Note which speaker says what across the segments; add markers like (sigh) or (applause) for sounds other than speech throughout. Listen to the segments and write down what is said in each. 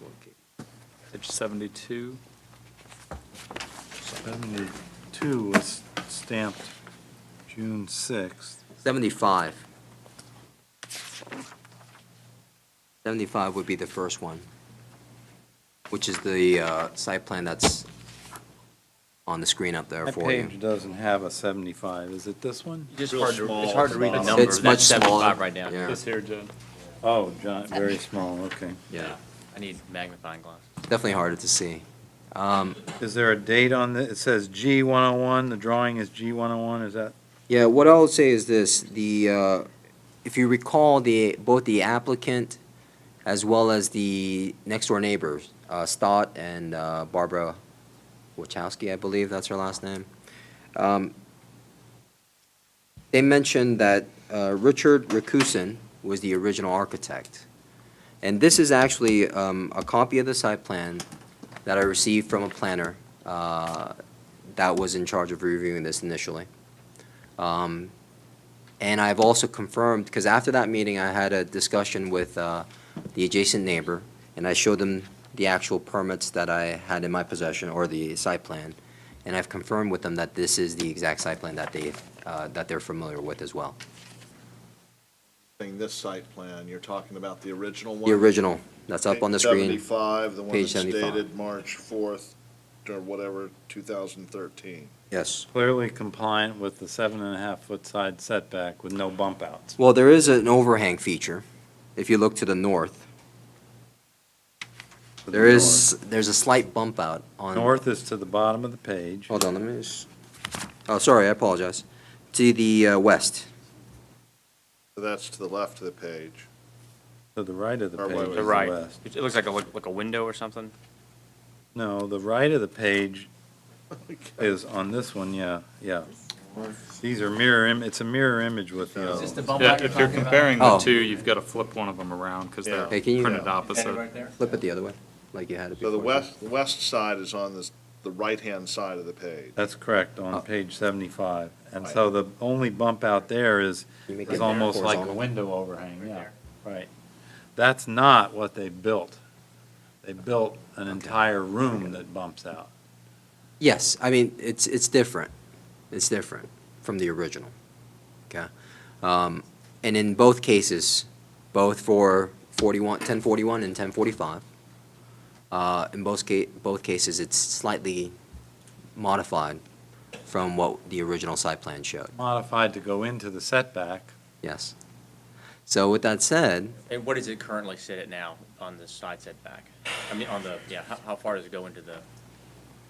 Speaker 1: one, Katie.
Speaker 2: Page 72.
Speaker 3: 72 was stamped June 6th.
Speaker 1: 75. 75 would be the first one, which is the uh, site plan that's on the screen up there
Speaker 3: That
Speaker 1: for you.
Speaker 3: page doesn't have a 75, is it this one?
Speaker 2: Just
Speaker 4: Real
Speaker 2: hard to, it's
Speaker 4: small
Speaker 2: hard to read the
Speaker 4: font.
Speaker 2: number.
Speaker 1: It's much
Speaker 2: That's
Speaker 1: smaller.
Speaker 2: 75 right now.
Speaker 1: Yeah.
Speaker 2: This here, Jen.
Speaker 3: Oh, John, very small, okay.
Speaker 1: Yeah,
Speaker 2: I need magnifying glass.
Speaker 1: definitely harder to see. Um,
Speaker 3: Is there a date on the, it says G 101, the drawing is G 101, is that?
Speaker 1: Yeah, what I would say is this, the, uh, if you recall, the, both the applicant as well as the next-door neighbors, uh, Stott and uh, Barbara Wachowski, I believe that's her last name, um, they mentioned that uh, Richard Rakusin was the original architect. And this is actually um, a copy of the site plan that I received from a planner uh, that was in charge of reviewing this initially. Um, And I've also confirmed, because after that meeting, I had a discussion with uh, the adjacent neighbor, and I showed them the actual permits that I had in my possession, or the site plan, and I've confirmed with them that this is the exact site plan that they, uh, that they're familiar with as well,
Speaker 4: Thing, This site plan, you're talking about the original one?
Speaker 1: the original that's up on the screen.
Speaker 4: Seventy-five, the one
Speaker 1: Page
Speaker 4: that's
Speaker 1: 75.
Speaker 4: dated March fourth, or whatever, two thousand thirteen.
Speaker 1: Yes.
Speaker 3: Clearly compliant with the seven and a half foot side setback with no bump outs.
Speaker 1: Well, there is an overhang feature, if you look to the north. There is, there's a slight bump out on.
Speaker 3: North is to the bottom of the page.
Speaker 1: Hold on, let me just, oh, sorry, I apologize. To the uh, west,
Speaker 4: That's to the left of the page.
Speaker 3: To the right of the
Speaker 4: Or
Speaker 3: page
Speaker 4: wait,
Speaker 3: is
Speaker 4: wait.
Speaker 3: the
Speaker 5: The right.
Speaker 3: west.
Speaker 5: It it looks like a, like a window or something.
Speaker 3: No, the right of the (laughs) page is on this one, yeah, yeah. These are mirror, im- it's a mirror image with the uh,
Speaker 4: Is this
Speaker 3: other one.
Speaker 2: Yeah, if you're comparing
Speaker 1: the
Speaker 2: the
Speaker 1: Oh.
Speaker 2: two,
Speaker 1: two,
Speaker 2: you've got to flip one of them around because
Speaker 4: they're
Speaker 2: they're
Speaker 4: Yeah. Hey,
Speaker 1: can you-
Speaker 2: printed
Speaker 1: printed
Speaker 2: opposite.
Speaker 1: flip it the other way, like you had it before.
Speaker 4: So the west, the west side is on this, the right-hand side of the page.
Speaker 3: That's correct,
Speaker 1: Oh.
Speaker 3: on page 75. And so the only bump out there is,
Speaker 1: You make
Speaker 3: is
Speaker 1: it
Speaker 3: almost like a
Speaker 1: horizontal.
Speaker 3: window overhang, yeah, right. That's not what they built. They built an entire room that bumps out.
Speaker 1: Yes, I mean, it's, it's different. It's different from the original, okay? Um, And in both cases, both for 41, 1041 and 1045, uh, in both ca, both cases, it's slightly modified from what the original site plan showed,
Speaker 3: Modified to go into the setback,
Speaker 1: yes. So with that said,
Speaker 6: And what does it currently sit at now on the side setback? I mean, on the, yeah, how, how far does it go into the,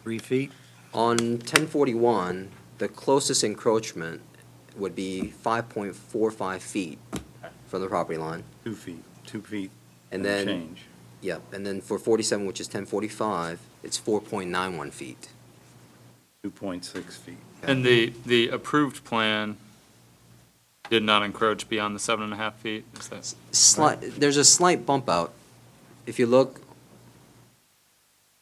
Speaker 3: three feet?
Speaker 1: On 1041, the closest encroachment would be 5.45 feet from the property line.
Speaker 3: Two feet, two feet
Speaker 1: And
Speaker 3: and
Speaker 1: then,
Speaker 3: change.
Speaker 1: yep, and then for 47, which is 1045, it's 4.91 feet.
Speaker 3: 2.6 feet.
Speaker 2: And the, the approved plan did not encroach beyond the seven and a half feet? Is that-
Speaker 1: Slight, there's a slight bump out. If you look,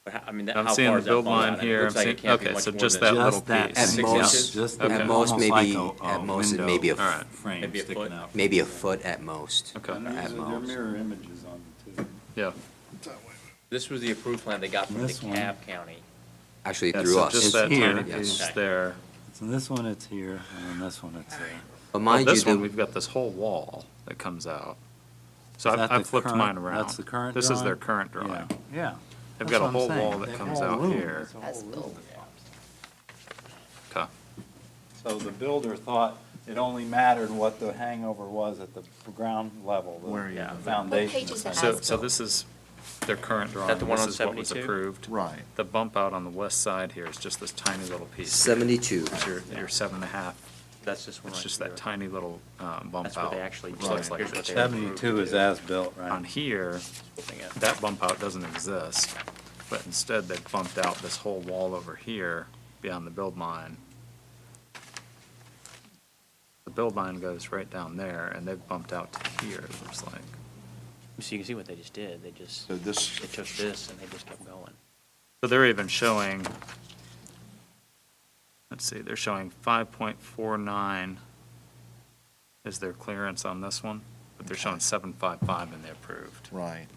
Speaker 6: but how- I mean, that-
Speaker 2: I'm
Speaker 6: how
Speaker 2: seeing
Speaker 6: far
Speaker 2: the
Speaker 6: is that
Speaker 2: build
Speaker 6: ball out?
Speaker 2: line
Speaker 6: I mean, it
Speaker 2: here, I'm
Speaker 6: looks like
Speaker 2: seeing,
Speaker 6: it can't be
Speaker 2: okay,
Speaker 6: much
Speaker 2: so
Speaker 6: more
Speaker 2: just
Speaker 6: than
Speaker 2: that little
Speaker 3: Just that
Speaker 2: piece.
Speaker 1: At
Speaker 3: six
Speaker 1: most-
Speaker 3: inches, just
Speaker 2: at
Speaker 3: that,
Speaker 1: most
Speaker 3: almost
Speaker 1: maybe-
Speaker 3: like a- a
Speaker 1: at most it may
Speaker 3: window
Speaker 1: be a f-
Speaker 3: Alright. Frame
Speaker 6: maybe a
Speaker 3: sticking
Speaker 6: foot.
Speaker 3: out.
Speaker 1: maybe a foot at most.
Speaker 2: Okay,
Speaker 3: And these
Speaker 1: at
Speaker 3: are- they're
Speaker 1: most.
Speaker 3: mirror images on the two.
Speaker 2: yeah.
Speaker 6: This was the approved plan they got from
Speaker 3: This one.
Speaker 6: DeKalb County.
Speaker 1: Actually,
Speaker 2: Yeah,
Speaker 1: through
Speaker 2: so just
Speaker 1: us.
Speaker 2: that
Speaker 3: here,
Speaker 2: tiny
Speaker 1: yes.
Speaker 2: piece there.
Speaker 3: So this one, it's here, and then this one, it's there.
Speaker 1: But
Speaker 2: Well,
Speaker 1: mind you,
Speaker 2: this one,
Speaker 1: the-
Speaker 2: we've got this whole wall that comes out. So
Speaker 3: Is
Speaker 2: I've
Speaker 3: that
Speaker 2: I've
Speaker 3: the
Speaker 2: flipped
Speaker 3: current-
Speaker 2: mine around.
Speaker 3: that's the current
Speaker 2: This is their
Speaker 3: drawing?
Speaker 2: current
Speaker 3: Yeah,
Speaker 2: drawing.
Speaker 3: Yeah.
Speaker 2: They've
Speaker 3: That's
Speaker 2: got a
Speaker 3: what I'm
Speaker 2: whole
Speaker 3: saying.
Speaker 2: wall that
Speaker 3: That
Speaker 2: comes
Speaker 3: whole
Speaker 2: out
Speaker 3: room,
Speaker 2: here.
Speaker 3: it's a whole room.
Speaker 2: Okay.
Speaker 3: So the builder thought it only mattered what the hangover was at the ground level, the-
Speaker 4: Where, yeah.
Speaker 3: the foundation.
Speaker 7: What page is that?
Speaker 2: So,
Speaker 7: As
Speaker 2: so
Speaker 7: built.
Speaker 2: this is their current drawing,
Speaker 6: the one
Speaker 2: this
Speaker 6: on
Speaker 2: is what was
Speaker 6: 72?
Speaker 2: approved.
Speaker 4: Right.
Speaker 2: The bump out on the west side here is just this tiny little piece.
Speaker 1: 72.
Speaker 2: It's your, your seven and a half,
Speaker 6: That's this one.
Speaker 2: it's
Speaker 6: right
Speaker 2: just
Speaker 6: here.
Speaker 2: that tiny little um, bump out.
Speaker 6: That's what they actually
Speaker 2: which
Speaker 6: did.
Speaker 2: looks like
Speaker 6: Here's what
Speaker 2: it's-
Speaker 6: they
Speaker 3: Seventy-two is as-built,
Speaker 2: On
Speaker 3: right?
Speaker 2: here, that bump out doesn't exist, but instead they bumped out this whole wall over here beyond the build line. The build line goes right down there, and they've bumped out to here, it looks like.
Speaker 6: So you can see what they just did. They just,
Speaker 4: So
Speaker 6: they
Speaker 4: this,
Speaker 6: took this and they just kept going.
Speaker 2: So they're even showing, let's see, they're showing five point four nine is their clearance on this one, but they're showing seven five five in the approved.
Speaker 4: right.